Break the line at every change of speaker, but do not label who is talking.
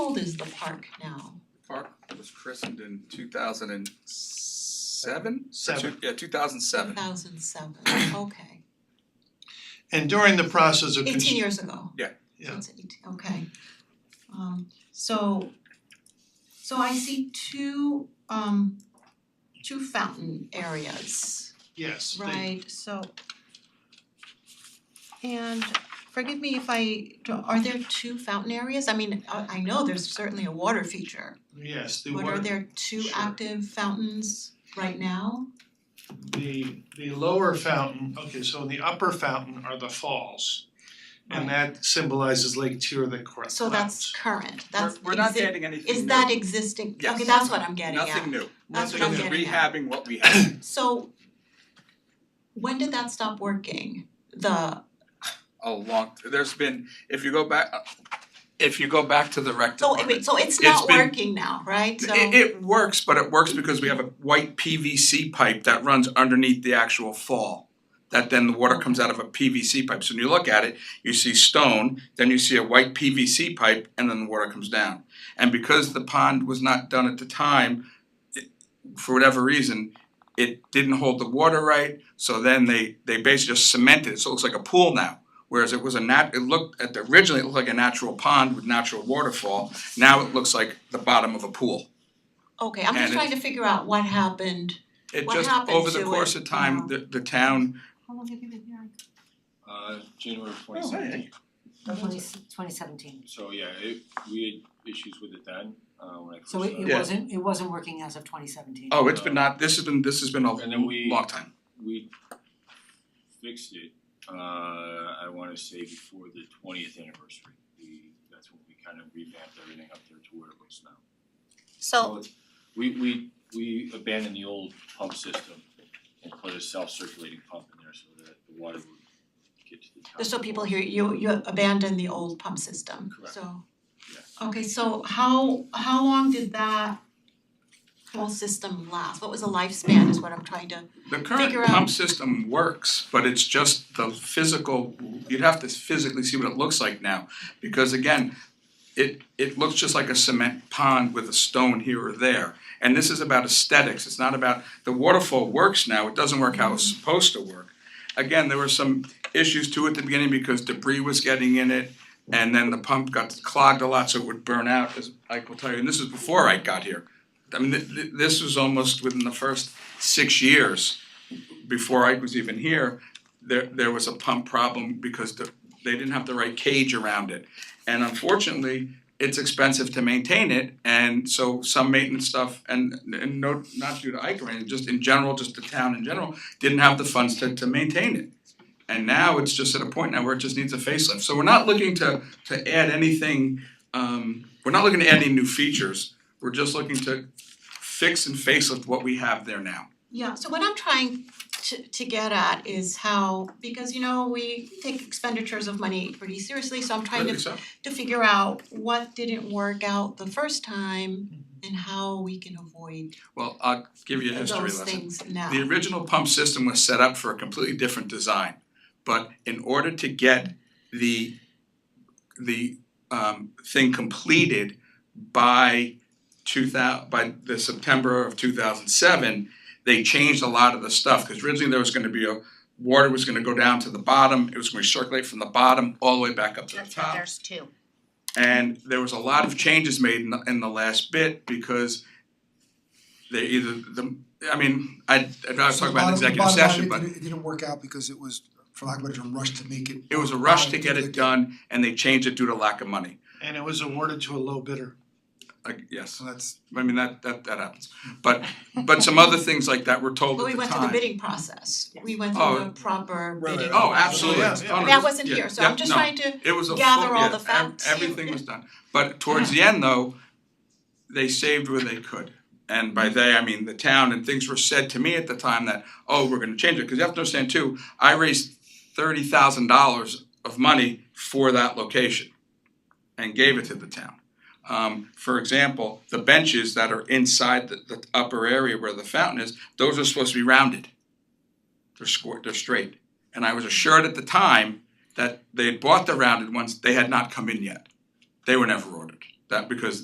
old is the park now?
Park was christened in two thousand and seven?
Seven.
Yeah, two thousand seven.
Two thousand seven, okay.
And during the process of
Eighteen
construction,
years ago.
Yeah.
Yeah.
So it's eighteen, okay. Um so so I see two um two fountain areas,
yes, they-
right? So and forgive me if I, are there two fountain areas? I mean, I I know there's certainly a water feature.
yes, the
But are
water,
there two
Sure.
active fountains right now?
the the lower fountain, okay, so in the upper fountain are the falls. And that symbolizes Lake Tier that cor-
So that's current, that's
We're we're not
exi-
getting anything
is
new.
that existing?
Yes.
Okay, that's what I'm getting at.
Nothing new.
That's what
Nothing
I'm
Just
getting at.
rehabbing what we had.
So when did that stop working? The,
Oh, long, there's been, if you go back, if you go back to the rec
so
department.
wait, so it's
It's
not
been-
working now, right? So
It it works, but it works because we have a white PVC pipe that runs underneath the actual fall. That then the water comes out of a PVC pipe, so when you look at it, you see stone, then you see a white PVC pipe, and then the water comes down. And because the pond was not done at the time, it- for whatever reason, it didn't hold the water right, so then they they basically just cemented it, so it looks like a pool now. Whereas it was a nat, it looked, at the- originally it looked like a natural pond with natural waterfall, now it looks like the bottom of a pool.
Okay, I'm
and
just
it-
trying to figure out what happened.
It
What
just,
happened
over the
to
course
it?
of time, the the town,
How long have you been here?
Uh, January of twenty
Oh, hey.
seventeen,
Twenty twenty seventeen.
so yeah, it, we had issues with it then, uh, when I first
So it
started.
it
Yeah.
wasn't, it wasn't working as of twenty seventeen.
oh, it's been not, this has been, this has been a
And then we-
long time.
We fixed it, uh, I wanna say before the twentieth anniversary, we, that's when we kind of revamped everything up there to where it looks now.
So
it's- We we we abandoned the old pump system and put a self-circulating pump in there so that the water would get to the top.
Just so people hear, you you abandoned the old pump system,
Correct.
so.
Yes.
Okay, so how how long did that whole system last? What was the lifespan is what I'm trying to,
The current
Figure
pump
out-
system works, but it's just the physical, you'd have to physically see what it looks like now. Because again, it it looks just like a cement pond with a stone here or there. And this is about aesthetics, it's not about, the waterfall works now, it doesn't work how it's supposed to work. Again, there were some issues too at the beginning because debris was getting in it and then the pump got clogged a lot, so it would burn out, as Ike will tell you, and this is before Ike got here. I mean, th- th- this was almost within the first six years before Ike was even here, there there was a pump problem because the they didn't have the right cage around it. And unfortunately, it's expensive to maintain it and so some maintenance stuff and and no not due to Ike or anything, just in general, just the town in general, didn't have the funds to to maintain it. And now it's just at a point now where it just needs a facelift. So we're not looking to to add anything um we're not looking to add any new features. We're just looking to fix and facelift what we have there now.
yeah, so what I'm trying to to get at is how, because you know, we take expenditures of money pretty seriously, so I'm trying
Rightly
to
so.
to figure out what didn't work out the first time and how we can avoid
Well, I'll give you a history
those
lesson.
things now.
The original pump system was set up for a completely different design. But in order to get the the um thing completed by two thou- by the September of two thousand seven, they changed a lot of the stuff, cause originally there was gonna be a water was gonna go down to the bottom, it was gonna circulate from the bottom all the way back up to the
that's why
top.
there's two.
And there was a lot of changes made in the, in the last bit because they either the, I mean, I I'd rather talk about an executive session, but
Bottom line, it didn't, it didn't work out because it was, for lack of a better term, rushed to make it.
it was a rush to get
Bottom line,
it done and they changed it due to lack of money.
and it was awarded to a low bidder.
Like, yes,
So that's,
I mean, that that that happens. But but some other things like that were told
But
at
we
the
went through the
time.
bidding process. We went
Oh.
through the proper
Right,
bidding.
right.
Oh, absolutely.
Yeah, yeah.
Oh, no,
That wasn't
yeah,
here, so I'm
yeah,
just
no.
trying to,
It was a full,
gather all
yeah,
the
ev-
facts.
everything was done. But towards the end though, they saved where they could. And by they, I mean the town and things were said to me at the time that, oh, we're gonna change it, cause you have to understand too, I raised thirty thousand dollars of money for that location and gave it to the town. Um, for example, the benches that are inside the, the upper area where the fountain is, those are supposed to be rounded. They're square, they're straight. And I was assured at the time that they had bought the rounded ones, they had not come in yet. They were never ordered, that because